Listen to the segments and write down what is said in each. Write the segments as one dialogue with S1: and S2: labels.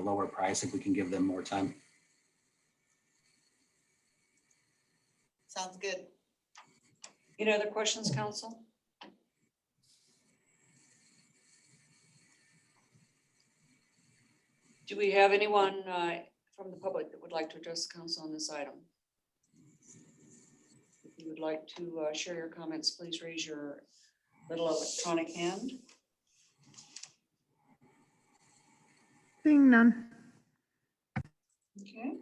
S1: lower price if we can give them more time.
S2: Sounds good.
S3: Any other questions, council? Do we have anyone uh, from the public that would like to address the council on this item? If you would like to uh, share your comments, please raise your little electronic hand.
S4: Seeing none.
S3: Okay.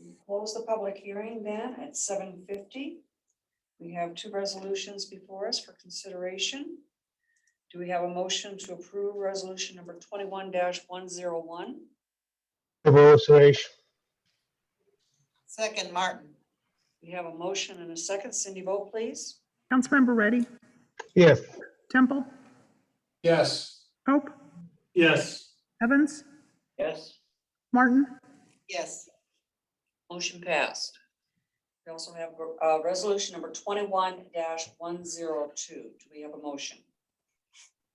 S3: We Close the public hearing then at seven fifty. We have two resolutions before us for consideration. Do we have a motion to approve resolution number twenty-one one zero one?
S5: Kabul Suresh,
S2: Second, Martin.
S3: We have a motion and a second. Cindy, vote please.
S4: Councilmember Reddy,
S5: yes.
S4: Temple,
S6: Yes.
S4: Pope,
S6: Yes.
S4: Evans,
S3: Yes.
S4: Martin,
S2: Yes,
S3: Motion passed. We also have, uh, resolution number twenty-one one zero two. Do we have a motion?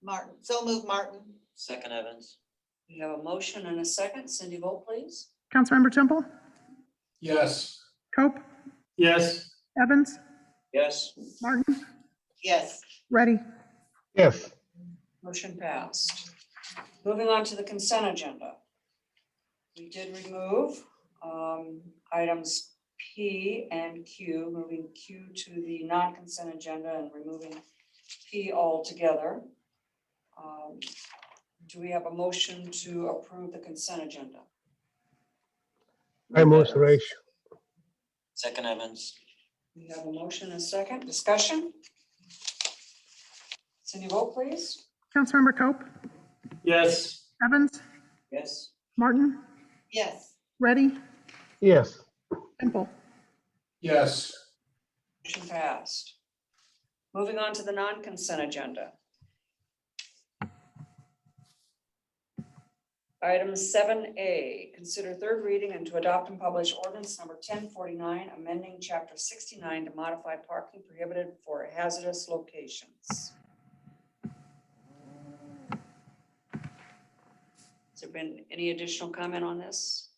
S2: Martin. So move, Martin.
S7: Second Evans,
S3: We have a motion and a second. Cindy, vote please.
S4: Councilmember Temple,
S6: Yes.
S4: Pope,
S6: Yes.
S4: Evans,
S7: yes.
S4: Martin,
S2: Yes,
S4: Reddy,
S5: Yes,
S3: Motion passed. Moving on to the consent agenda. We did remove um, items P and Q, moving Q to the non-consent agenda and removing P altogether. Um, Do we have a motion to approve the consent agenda?
S5: I move Suresh,
S7: Second Evans,
S3: We have a motion and a second discussion. Cindy, vote please.
S4: Councilmember Cope,
S6: Yes.
S4: Evans,
S7: yes.
S4: Martin,
S2: yes,
S4: Reddy,
S5: yes.
S4: Temple,
S6: Yes.
S3: Motion passed. Moving on to the non-consent agenda. Item seven A, consider third reading and to adopt and publish ordinance number ten forty-nine, amending chapter sixty-nine to modify parking prohibited for hazardous locations. Has there been any additional comment on this?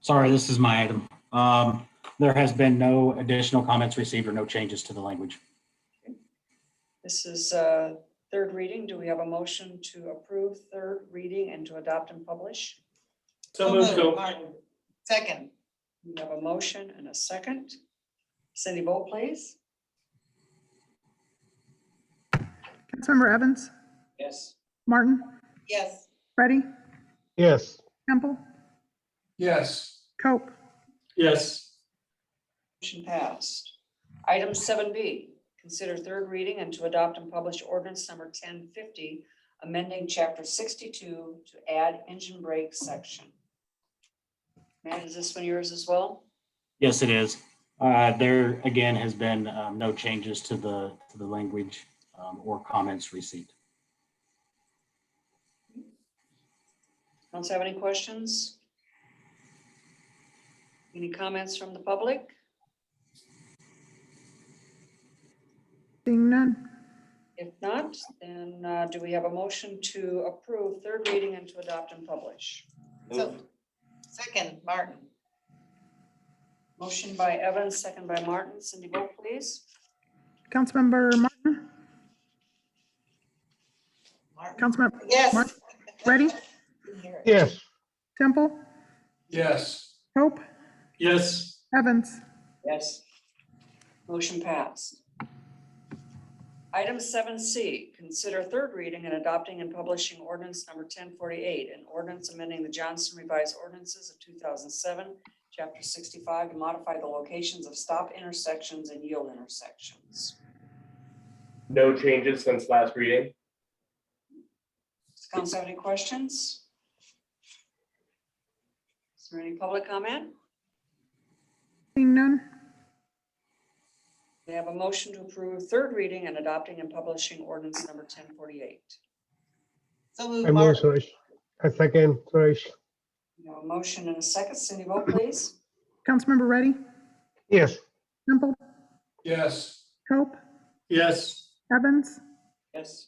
S1: Sorry, this is my item. Um, there has been no additional comments received or no changes to the language.
S3: This is uh third reading. Do we have a motion to approve third reading and to adopt and publish?
S6: So
S2: So
S6: moved,
S2: moved,
S6: Cope.
S2: Martin. second.
S3: We have a motion and a second. Cindy, vote please.
S4: Councilmember Evans,
S7: Yes.
S4: Martin,
S2: Yes,
S4: Reddy,
S5: Yes,
S4: Temple,
S6: Yes.
S4: Cope,
S6: Yes.
S3: Motion passed. Item seven B, consider third reading and to adopt and publish ordinance number ten fifty, amending chapter sixty-two to add engine brake section. Matt, is this one yours as well?
S1: Yes, it is. Uh, there again has been, um, no changes to the, to the language, um, or comments received.
S3: Council have any questions? Any comments from the public?
S4: seeing none.
S3: If not, then uh, do we have a motion to approve third reading and to adopt and publish?
S2: so,
S7: Move.
S2: second, Martin.
S3: Motion by Evans, second by Martin. Cindy, vote please.
S4: Councilmember Martin,
S2: Martin.
S4: Councilmember
S2: Yes.
S4: Martin. Reddy,
S2: Didn't hear it.
S5: yes,
S4: Temple,
S6: Yes.
S4: Pope,
S6: Yes.
S4: Evans,
S3: Yes. Motion passed. Item seven C, consider third reading and adopting and publishing ordinance number ten forty-eight, an ordinance amending the Johnson revised ordinances of two thousand seven, chapter sixty-five, to modify the locations of stop intersections and yield intersections.
S8: No changes since last reading.
S3: Does council have any questions? Is there any public comment?
S4: seeing none.
S3: They have a motion to approve third reading and adopting and publishing ordinance number ten forty-eight.
S2: So
S5: I
S2: move,
S5: move
S2: Martin.
S5: Suresh. I second Suresh,
S3: We have a motion and a second. Cindy, vote please.
S4: Councilmember Reddy,
S5: yes.
S4: Temple,
S6: Yes.
S4: Cope,
S6: Yes.
S4: Evans,
S7: yes.